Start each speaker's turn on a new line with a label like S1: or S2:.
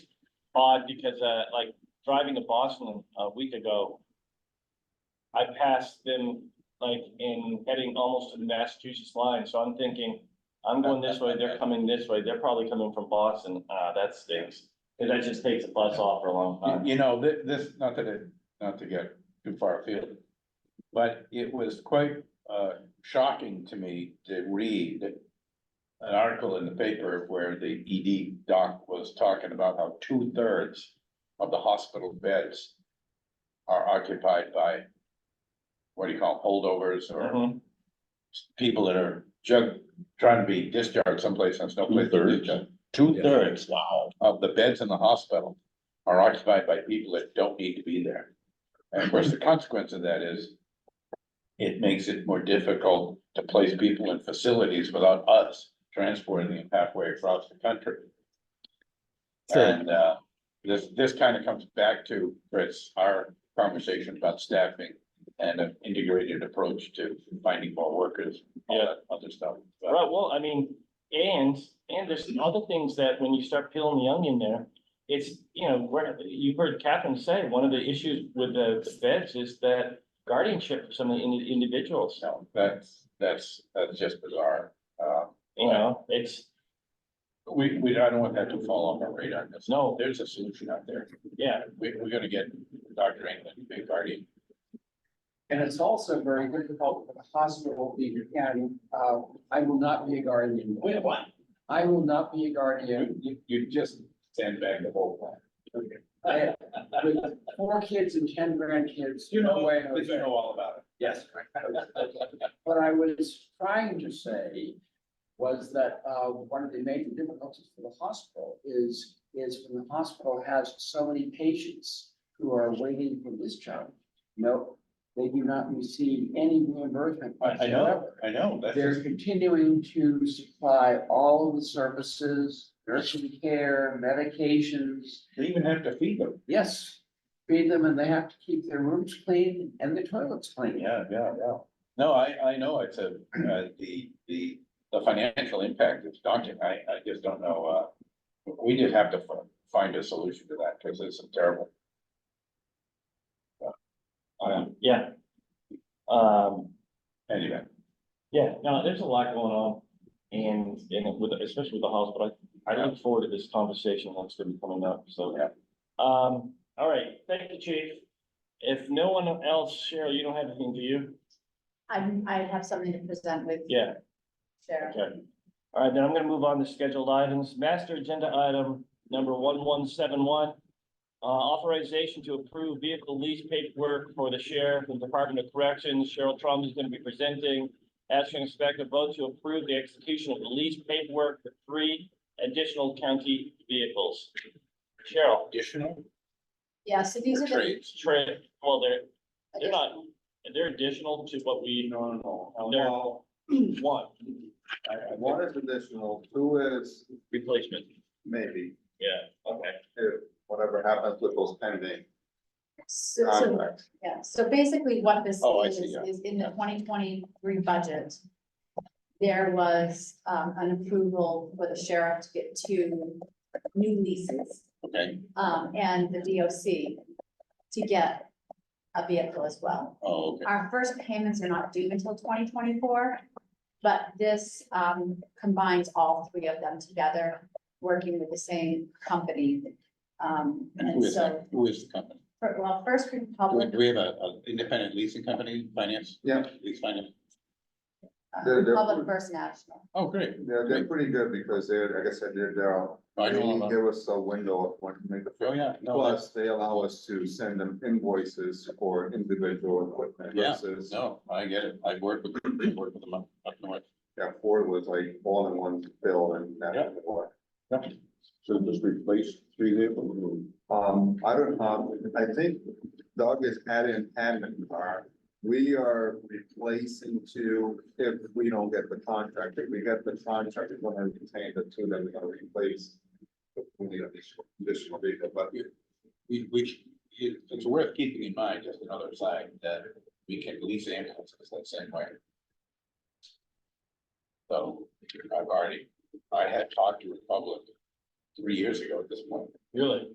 S1: odd because, uh, like, driving to Boston a week ago, I passed them, like, in heading almost to the Massachusetts line, so I'm thinking, I'm going this way, they're coming this way, they're probably coming from Boston, uh, that stinks. Cause that just takes a bus off for a long
S2: Uh, You,
S1: time.
S2: you know, thi- this, not that it, not to get too far afield, but it was quite, uh, shocking to me to read an article in the paper where the ED doc was talking about how two thirds of the hospital beds are occupied by, what do you call, it, holdovers
S3: Uh-huh.
S2: or
S1: Mhm.
S2: people that are jug, trying to be discharged someplace and no place to
S3: Two-thirds?
S2: discharge. Two thirds of the beds in the hospital are occupied by people that don't need to be there. And of course, the consequence of that is it makes it more difficult to place people in facilities without us transporting them halfway across the country. And, uh, this, this kind of comes back to, Chris, our conversation about staffing and an integrated approach to finding more workers, all that other stuff. But-
S1: Right, well, I mean, and, and there's other things that when you start peeling the onion there, it's, you know, where, you've heard Catherine say, one of the issues with the the feds is that guardianship for some of the indi- individuals,
S2: No, that's, that's, that's just bizarre. Uh,
S1: you know, it's,
S2: we, we, I don't want that to fall off our radar. That's-
S1: no,
S2: There's a solution out there.
S1: yeah,
S2: We, we're gonna get Dr. England, to be guardian.
S4: And it's also very difficult for the hospital to be, and, uh, I will not be a guardian. Wait, what? I will not be a guardian.
S2: You, you just sandbag the whole plan.
S4: I, with four kids and ten grandkids.
S2: You
S4: no
S2: know,
S4: way I
S2: you
S4: was-
S2: know all about it.
S4: Yes. What I was trying to say was that, uh, one of the major difficulties for the hospital is, is when the hospital has so many patients who are waiting for discharge. No, they do not receive any reimbursement
S2: I, I know,
S4: whatsoever.
S2: I know. That's,
S4: They're
S2: just-
S4: continuing to supply all of the services, nursing care, medications.
S2: they even have to feed them.
S4: Yes, feed them and they have to keep their rooms clean and the toilets clean.
S2: Yeah, yeah, yeah. No, I, I know it's a, uh, the, the, the financial impact is daunting. I, I just don't know, uh. We just have to fi- find a solution to that because it's terrible. Uh, Um,
S1: yeah. Um,
S2: anyway,
S1: yeah, no, there's a lot going on, and, and with, especially with the hospital, I I look forward to this conversation that's gonna be coming up, so.
S2: Yeah.
S1: Um, all right, thank you, chief. If no one else, Cheryl, you don't have anything, do you?
S5: I'm, I have something to present with
S1: Yeah.
S5: Sarah.
S1: Okay. All right, then I'm gonna move on to scheduled items. Master agenda item number one one seven one. Uh, authorization to approve vehicle lease paperwork for the sheriff and Department of Corrections. Cheryl Trump is gonna be presenting. Asking inspector vote to approve the execution of the lease paperwork for three additional county vehicles. Cheryl,
S2: additional
S5: Yeah, so these are the.
S2: trades.
S1: Trey, well, they're, they're not, they're additional to what we. No, no. They're one
S6: One is additional, two is
S1: replacement.
S6: maybe,
S1: Yeah, okay.
S6: if whatever happens with those pending
S5: So, so,
S6: contracts.
S5: yeah, so basically what this
S2: Oh, I
S5: is,
S2: see, yeah.
S5: is in the twenty twenty-three budget. There was, um, an approval for the sheriff to get two new leases,
S2: Okay,
S5: um, and the DOC to get a vehicle as well.
S2: oh, okay.
S5: Our first payments are not due until twenty twenty-four, but this um combines all three of them together, working with the same company. Um,
S2: And who
S5: and
S2: is
S5: so,
S2: that? Who is the company?
S5: for- well, First
S2: Do we-
S5: Republic.
S2: Do we have a, a independent leasing company finance?
S6: Yeah.
S2: Lease finance?
S5: uh,
S6: They're- they're-
S5: Republic First National.
S2: Oh, great.
S6: They're, they're pretty good because they're, like I said, they're, they're,
S2: I know all
S6: they
S2: about it.
S6: give us a window of when to make the.
S2: Oh, yeah. No, that's-
S6: Plus, they allow us to send them invoices for individual equipment
S2: Yeah,
S6: versus,
S2: No, I get it. I work with, I work with them up, up north.
S6: yeah, Ford was like all in one bill and
S2: Yeah.
S6: that. what.
S3: So just replace three vehicles.
S6: Um, I don't, um, I think Doug is adding admin car. We are replacing two if we don't get the contract. If we get the contract, we're gonna retain the two that we're gonna replace. We need additional, additional vehicle, but
S2: We, we, it- it's worth keeping in mind, just another side, that we can lease ambulances that same way. So I've already, I had talked to Republic three years ago at this point.
S1: Really?